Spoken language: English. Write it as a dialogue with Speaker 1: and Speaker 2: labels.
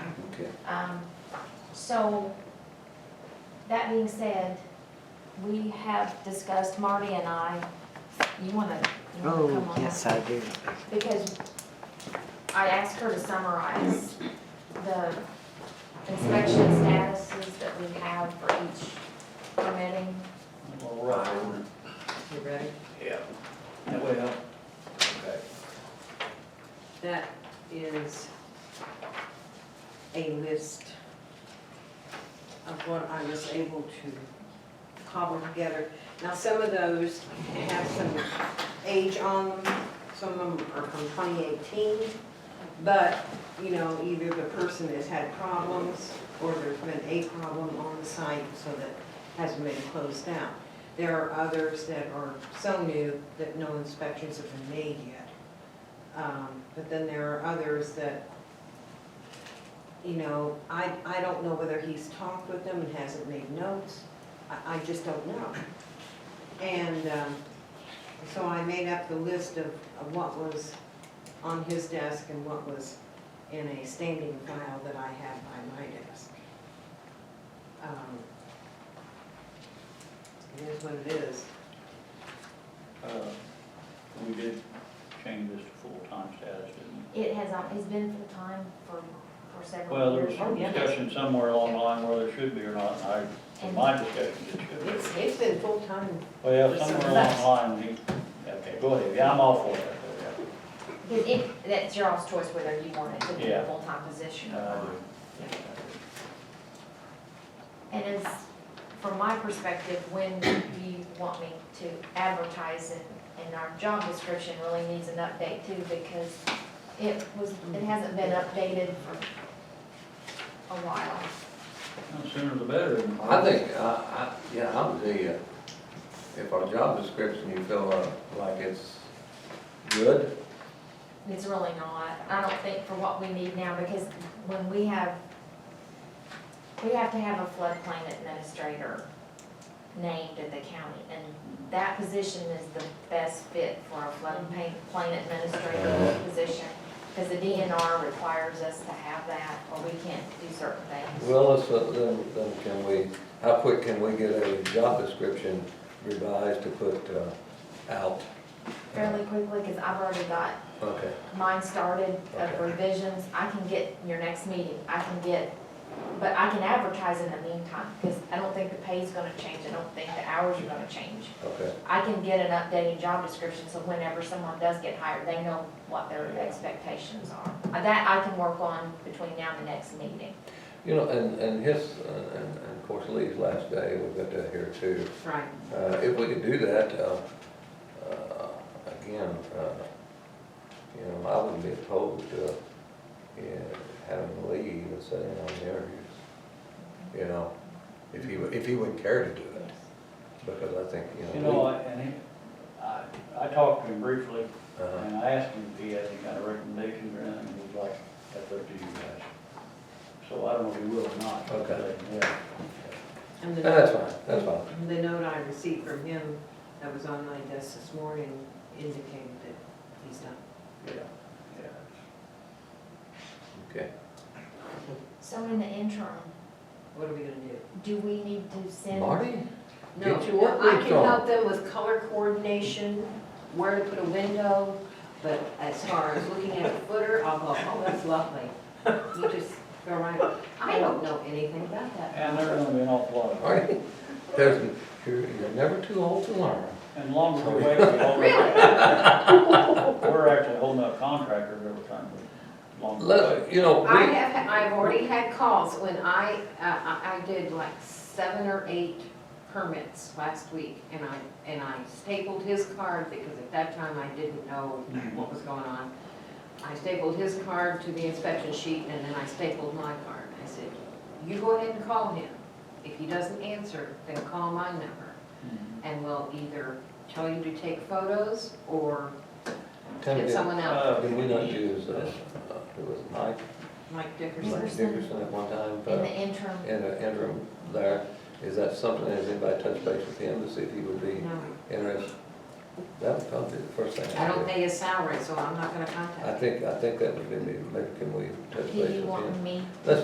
Speaker 1: Um, So, that being said, we have discussed, Marty and I, you wanna, you wanna come
Speaker 2: Oh,
Speaker 1: on?
Speaker 2: yes, I do.
Speaker 1: Because I asked her to summarize the inspection statuses that we have for each permitting.
Speaker 3: All right.
Speaker 4: You ready?
Speaker 3: Yeah. Well, okay.
Speaker 4: That is a list of what I was able to cobble together. Now, some of those have some age on them, some of them are from 2018, but, you know, either the person has had problems or there's been a problem on the site, so that hasn't been closed down. There are others that are so new that no inspections have been made yet. Um, But then there are others that, you know, I, I don't know whether he's talked with them and hasn't made notes. I, I just don't know. And um, so I made up the list of, of what was on his desk and what was in a standing file that I have by my desk. Um, It is what it is.
Speaker 5: Uh, We did change this to full-time status, didn't
Speaker 1: It has, um, it's been full-time for, for
Speaker 5: we? Well,
Speaker 1: several
Speaker 5: there
Speaker 1: years.
Speaker 5: was some
Speaker 4: yeah.
Speaker 5: discussion somewhere along the line whether it should be or not, and I, in my discussion, it should be.
Speaker 4: It's, it's been full-time
Speaker 5: Well, somewhere along the line, we, okay, go ahead, yeah, I'm all for that, though,
Speaker 1: It- it- that's your all's choice whether you want it to be a
Speaker 5: Yeah.
Speaker 1: full-time position
Speaker 5: yeah.
Speaker 1: or
Speaker 5: Uh,
Speaker 1: not. And as, from my perspective, when do you want me to advertise it? And our job description really needs an update too, because it was, it hasn't been updated for a while.
Speaker 5: the Sooner the better.
Speaker 6: I think, I, I, yeah, I would say, uh, if our job description you feel uh, like it's good,
Speaker 1: It's really not, I don't think for what we need now, because when we have, we have to have a floodplain administrator named at the county, and that position is the best fit for a floodplain plain administrator position, because the DNR requires us to have that, or we can't do certain things.
Speaker 6: well, let's, uh, then, then can we, how quick can we get a job description revised to put, uh, out?
Speaker 1: Fairly quickly, because I've already got
Speaker 6: Okay,
Speaker 1: mine started of
Speaker 6: Okay.
Speaker 1: revisions, I can get your next meeting, I can get, but I can advertise in the meantime, because I don't think the pay's gonna change, I don't think the hours are gonna change.
Speaker 6: okay,
Speaker 1: I can get an updated job description, so whenever someone does get hired, they know what their expectations are. Uh, That I can work on between now and the next meeting.
Speaker 6: you know, and, and his, uh, and, and of course Lee's last day, we've got that here too.
Speaker 4: Right.
Speaker 6: Uh, if we could do that, uh, uh, again, uh, you know, I wouldn't be opposed to, yeah, having Lee even sit in on the interviews. You know, if he, would- if he wouldn't care to do it, because I think, you know.
Speaker 5: You know, I- and he, I, I talked to him briefly,
Speaker 6: Lee- uh-huh.
Speaker 5: and I asked him if he had any kind of recommendations or anything, he was like, that's up to you guys. So I don't know if he will or not. but,
Speaker 6: Okay.
Speaker 5: Yeah.
Speaker 4: And the-
Speaker 6: And that's fine, that's fine.
Speaker 4: The note I received from him that was on my desk this morning indicated that he's done.
Speaker 5: Yeah, yeah.
Speaker 6: Okay.
Speaker 1: So in the interim,
Speaker 4: What are we gonna do?
Speaker 1: do we need to send?
Speaker 6: Marty?
Speaker 4: No,
Speaker 6: Get your work
Speaker 4: I can
Speaker 6: boots on.
Speaker 4: help them with color coordination, where to put a window, but as far as looking at a footer, I'll go, oh, that's lovely. You just go right, I don't know anything about that.
Speaker 5: And there's gonna be an awful lot of,
Speaker 6: Marty, there's, you're, you're never too old to learn.
Speaker 5: and longer we wait, we already. We're actually holding up contractors every time we, long.
Speaker 6: Let, you know,
Speaker 4: I
Speaker 6: we,
Speaker 4: have, I've already had calls when I, uh, I I did like seven or eight permits last week and I, and I stapled his card because at that time I didn't know what was going on. I stapled his card to the inspection sheet and then I stapled my card. I said, you go ahead and call him. If he doesn't answer, then call my number and we'll either tell you to take photos or
Speaker 6: Tim,
Speaker 4: get
Speaker 6: did,
Speaker 4: someone else,
Speaker 5: Uh,
Speaker 6: did we not use, uh, uh, who was it, Mike?
Speaker 4: Mike Dickerson.
Speaker 6: Mike
Speaker 1: Dickerson.
Speaker 6: Dickerson at one time,
Speaker 1: In
Speaker 6: but.
Speaker 1: the interim,
Speaker 6: in an interim there, is that something, has anybody touched base with him to see if he would be
Speaker 4: No,
Speaker 6: interested? That would probably be the first thing.
Speaker 4: I
Speaker 6: I'd
Speaker 4: don't
Speaker 6: do.
Speaker 4: pay his salary, so I'm not gonna contact him.
Speaker 6: I think, I think that would be, maybe can we touch
Speaker 1: do
Speaker 6: base
Speaker 1: you
Speaker 6: with him?
Speaker 1: want me